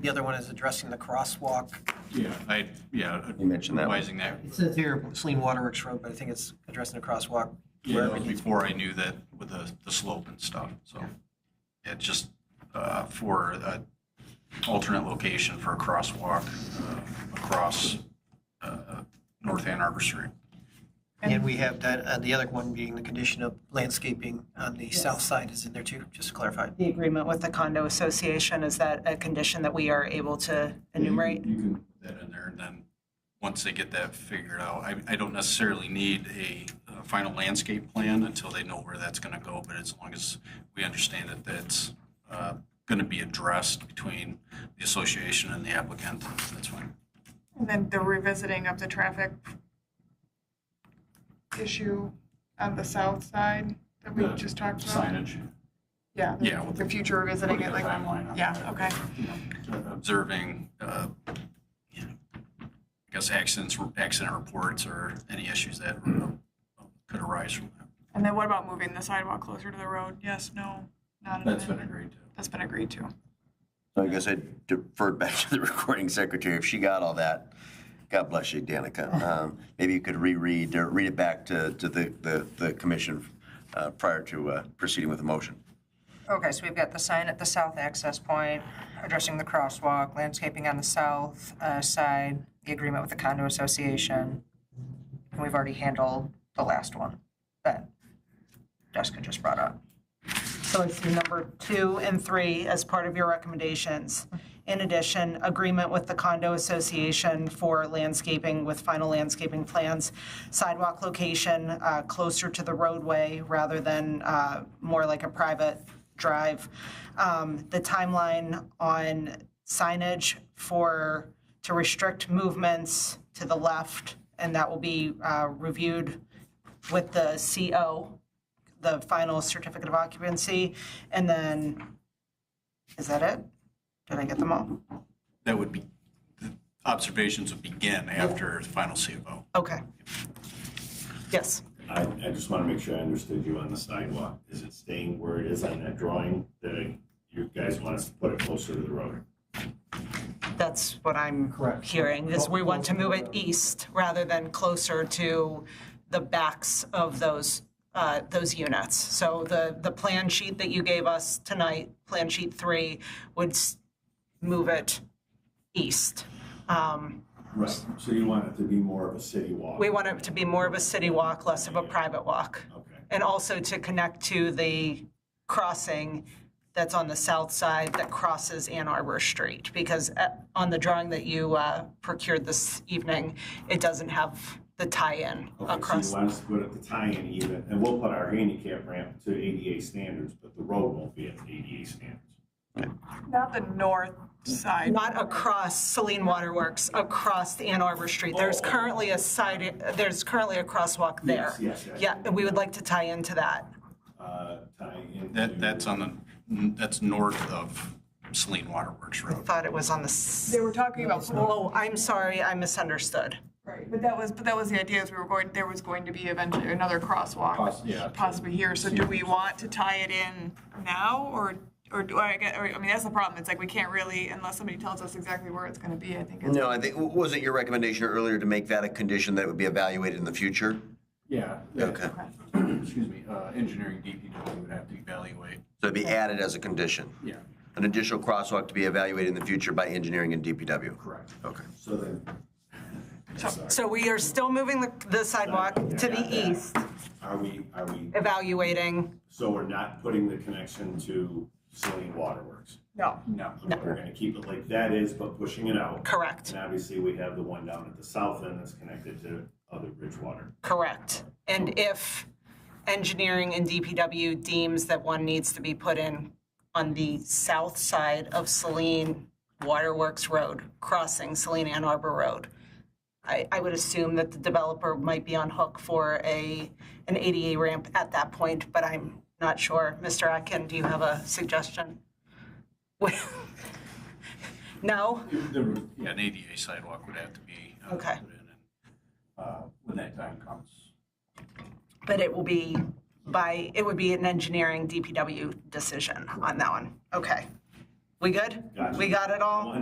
The other one is addressing the crosswalk. Yeah, I, yeah. You mentioned that one. Revising that, It says here Celine Waterworks Road, but I think it's addressing the crosswalk. yeah, wherever that was it needs- before I knew that with the, the slope and stuff, so. Yeah, just uh, for uh alternate location for a crosswalk uh, across uh, North Ann Arbor Street. And we have that, uh, the other one being the condition of landscaping on the Yes. south side is in there too, just to clarify. The agreement with the condo association, is that a condition that we are able to enumerate? You can put that in there, and then, once they get that figured out, I, I don't necessarily need a uh, final landscape plan until they know where that's gonna go, but as long as we understand that that's uh, gonna be addressed between the association and the applicant, that's fine. And then the revisiting of the traffic issue on the south side that we The just talked about? Signage. Yeah, Yeah, with the- the future revisiting Putting it, a like, timeline on yeah, that. okay. Observing, uh, you know, I guess accidents, accident reports or any issues that uh, could arise from that. And then what about moving the sidewalk closer to the road? Yes, no, not an amendment? agreed to. That's been agreed to. So I guess I deferred back to the recording secretary. If she got all that, God bless you, Danica. Um, Maybe you could reread, or read it back to, to the, the, the commission uh, prior to uh, proceeding with the motion. Okay, so we've got the sign at the south access point, addressing the crosswalk, landscaping on the south uh, side, the agreement with the condo association, and we've already handled the last one that Jessica just brought up. So I see number two and three as part of your recommendations. In addition, agreement with the condo association for landscaping with final landscaping plans, sidewalk location uh, closer to the roadway rather than uh, more like a private drive. Um, The timeline on signage for, to restrict movements to the left, and that will be uh, reviewed with the CO the final certificate of occupancy, and then, is that it? Did I get them all? That would be, the observations would begin after the final CFO. Okay. Yes. I, I just want to make sure I understood you on the sidewalk. Is it staying where it is on that drawing that you guys want us to put it closer to the road? That's what I'm hearing, is we want to move it east rather than closer to the backs of those, uh, those units. So the, the plan sheet that you gave us tonight, Plan Sheet 3, would s- move it east. Um, Right. So you want it to be more of a city walk? We want it to be more of a city walk, less of a private walk. Okay. And also to connect to the crossing that's on the south side that crosses Ann Arbor Street. Because uh, on the drawing that you uh, procured this evening, it doesn't have the tie-in Okay, so across. you want us to put it the tie-in even, and we'll put our handicap ramp to ADA standards, but the road won't be at ADA standards. Not the north side. Not across Celine Waterworks, across the Ann Arbor Street. There's Oh. currently a side, there's currently a crosswalk there. Yes, yes, yes. Yeah, and we would like to tie into that. Uh, tying into. That, that's on the, that's north of Saline Waterworks I Road. Thought it was on the, s- They were talking about, oh, I'm sorry, I misunderstood. right, but that was, but that was the idea, is we were going, there was going to be eventually another crosswalk. Poss- yeah. Possibly here, so do we want to tie it in now, or, or, do I, get- or, I mean, that's the problem, it's like, we can't really, unless somebody tells us exactly where it's gonna be, I think it's. No, I think, was it your recommendation earlier to make that a condition that would be evaluated in the future? Yeah. Okay. Excuse me, uh, engineering DPW would have to evaluate. So it'd be added as a condition? Yeah. An additional crosswalk to be evaluated in the future by engineering and DPW? Correct. Okay. So then, So we are still moving the the sidewalk to the east, are we, are we, evaluating. so we're not putting the connection to Saline Waterworks? No. No. We're gonna keep it like that is, but pushing it out. Correct, And obviously, we have the one down at the south end that's connected to other Bridgewater. correct. And if engineering and DPW deems that one needs to be put in on the south side of Celine Waterworks Road, crossing Celine Ann Arbor Road, I, I would assume that the developer might be on hook for a, an ADA ramp at that point, but I'm not sure. Mr. Atkin, do you have a suggestion? No? Yeah, an ADA sidewalk would have to be. uh, Okay. put in, and, uh, When that time comes. But it will be by, it would be an engineering DPW decision on that one. Okay. We good? Gotcha. We got it all?